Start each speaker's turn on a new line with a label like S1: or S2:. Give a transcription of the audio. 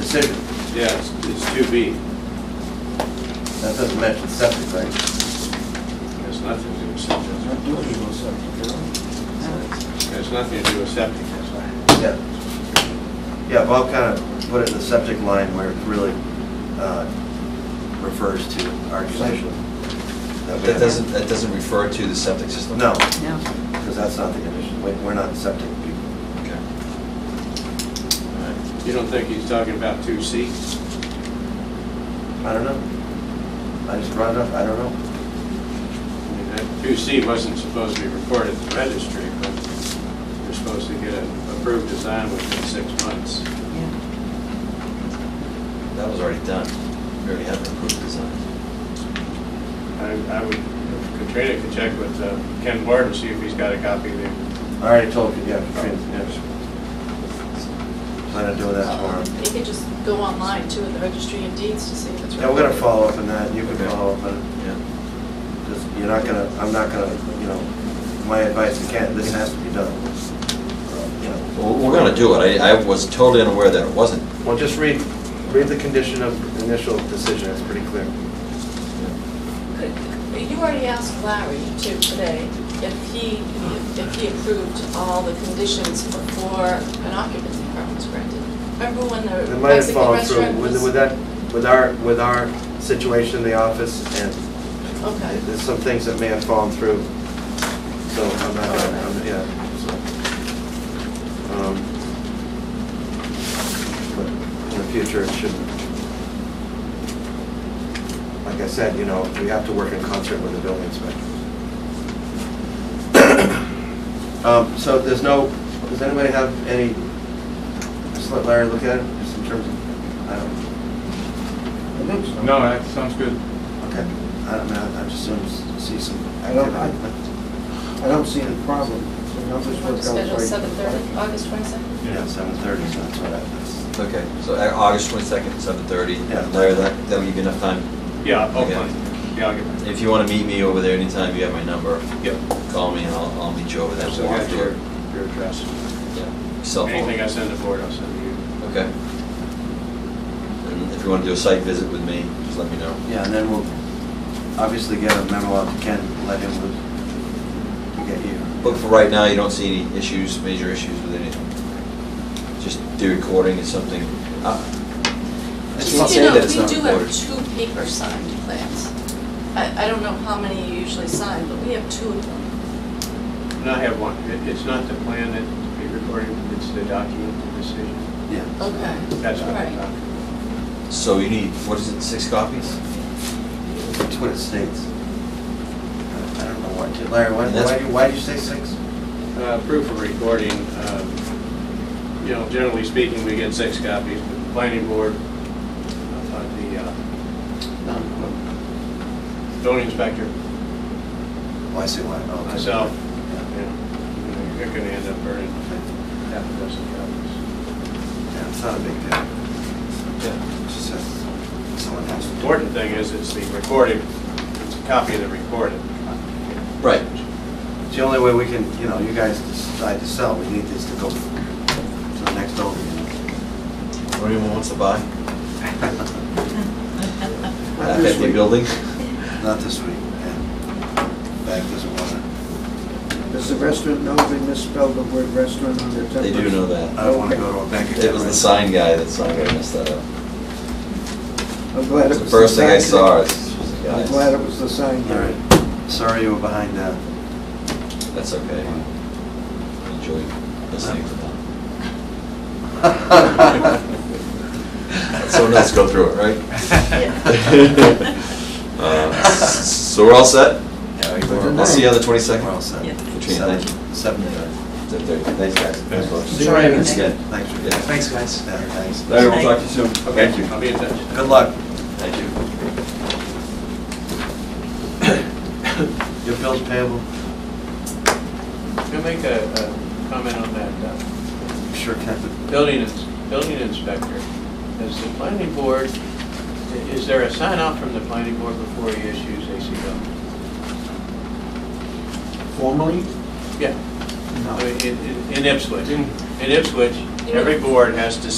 S1: Six,
S2: Yeah, it's- it's 2B.
S1: that doesn't mention septic, right?
S2: It's nothing to do with septic. It's nothing to do with septic, that's why.
S1: Yeah. Yeah, Bob kind of put it in the septic line where it really uh, refers to our condition. we
S3: That
S1: have.
S3: doesn't, that doesn't refer to the septic system?
S1: No,
S4: No.
S1: because that's not the condition. We- We're not septic people.
S3: Okay.
S2: You don't think he's talking about 2C?
S1: I don't know. I just brought it up, I don't know.
S2: I mean, that 2C wasn't supposed to be recorded at the registry, but you're supposed to get an approved design within six months.
S4: Yeah.
S3: That was already done. We already had an approved design.
S2: I I would, Katrina could check with uh, Ken Ward and see if he's got a copy of the...
S1: I already told you, yeah, Katrina,
S2: Yes.
S1: plan on doing that tomorrow.
S5: You could just go online too, at the registry of deeds to see if it's.
S1: Yeah, we're gonna follow up on that, you can
S3: Okay.
S1: follow up on it.
S3: Yeah.
S1: Just, you're not gonna, I'm not gonna, you know, my advice, you can't, this has to be done. You know,
S3: Well, we're gonna do it. I, I was totally unaware that it wasn't.
S1: Well, just read, read the condition of initial decision, it's pretty clear.
S5: Could- You already asked Larry too today if he, if he approved all the conditions before an occupancy permit was granted. Remember when the
S1: It might have
S5: Mexican
S1: fallen through
S5: restaurant was?
S1: with, with that, with our, with our situation in the office, and
S5: Okay.
S1: there's some things that may have fallen through, so I'm not, gonna- I'm, yeah, so. um, But in the future, it should, like I said, you know, we have to work in concert with the building inspector. Um, so there's no, does anybody have any, just let Larry look at it, just in terms of, I don't.
S6: No, that sounds good.
S1: Okay, I don't know, I just want to see some
S7: I don't-
S1: activity.
S7: I- I don't see any problem. The numbers
S5: Want to
S7: work out
S5: schedule
S7: right.
S5: seven thirty, August twenty-second?
S1: Yeah, seven thirty, so that's what I, that's,
S3: Okay, so uh, August twenty-second, seven thirty.
S1: Yeah. oh,
S3: Larry, that, that'll give you enough time.
S2: Yeah,
S3: Okay.
S2: okay. Yeah, I'll get that.
S3: If you wanna meet me over there anytime, you have my number.
S2: Yep.
S3: Call me and I'll, I'll meet you over there.
S2: So I got your, your address.
S3: Yeah. Cell phone.
S2: Anything I send the board, I'll send to you.
S3: Okay. And if you wanna do a site visit with me, just let me know.
S1: yeah, and then we'll obviously get a memo out to Ken, let him look- to get you.
S3: But for right now, you don't see any issues, major issues with anything? Just the recording is something, uh, it's not
S5: You
S3: saying
S5: know,
S3: that it's not
S5: we do have
S3: recorded.
S5: two paper signed plans. I, I don't know how many you usually sign, but we have two of them.
S2: And I have one. It- It's not the plan that to be recorded, it's the document, the decision.
S1: Yeah.
S5: Okay.
S2: That's what I'm
S5: Right.
S2: talking about.
S3: So you need, what is it, six copies?
S1: That's what it states. I I don't know why, did- Larry, why,
S3: And that's-
S1: why do, why do you say six?
S2: Uh, Proof of recording, um, you know, generally speaking, we get six copies, but the planning board, uh, the uh, zoning inspector, uh,
S1: Why I say why? Oh, okay.
S2: myself, you
S1: Yeah,
S2: know, you're gonna end up burning half a dozen copies.
S1: yeah, it's not a big deal,
S3: Yeah.
S1: it just says someone has to. do it.
S2: Important thing is, it's the recorded, it's a copy of the recorded.
S1: Uh,
S3: Right.
S1: It's the only way we can, you know, you guys decide to sell, we need this to go to the next owner.
S3: Or anyone wants to buy?
S7: Not
S3: Half
S7: this
S3: empty
S7: week.
S3: building?
S1: Not this week, yeah. Bank doesn't want to,
S7: Does the restaurant know they misspelled the word restaurant on their template?
S3: They do know that.
S1: I don't want to go to a bank account.
S3: It was the sign guy that signed it, I messed that up.
S7: I'm glad it
S3: It's the
S7: was.
S3: first thing I
S7: sign
S3: saw,
S7: guy.
S3: it's,
S7: I'm glad it
S3: guys,
S7: was the sign
S1: All
S7: guy.
S1: right, sorry you were behind that.
S3: that's okay. Enjoy listening to them. Someone else go through it, right? Uh, s- So we're all set? I'll see you on the 22nd.
S1: We're all set.
S4: Yeah.
S3: Katrina, thank you.
S1: Seven thirty.
S3: Thanks, guys. Thanks, folks.
S7: Enjoy everything.
S3: Thanks again.
S1: Thanks for
S3: Yeah.
S1: that.
S3: Thanks,
S1: guys. Yeah, thanks.
S3: Larry, we'll talk to you soon. Thank you.
S2: I'll be in touch.
S1: Good luck.
S3: Thank you.
S1: Your bill's payable?
S2: Can I make a a comment on that? uh,
S1: Sure can.
S2: Building, ins- building inspector, is the planning board, i- is there a sign off from the planning board before he issues ACO?
S6: Formally?
S2: Yeah, I
S6: No.
S2: mean, in- in in Ipswich, in Ipswich, every board has to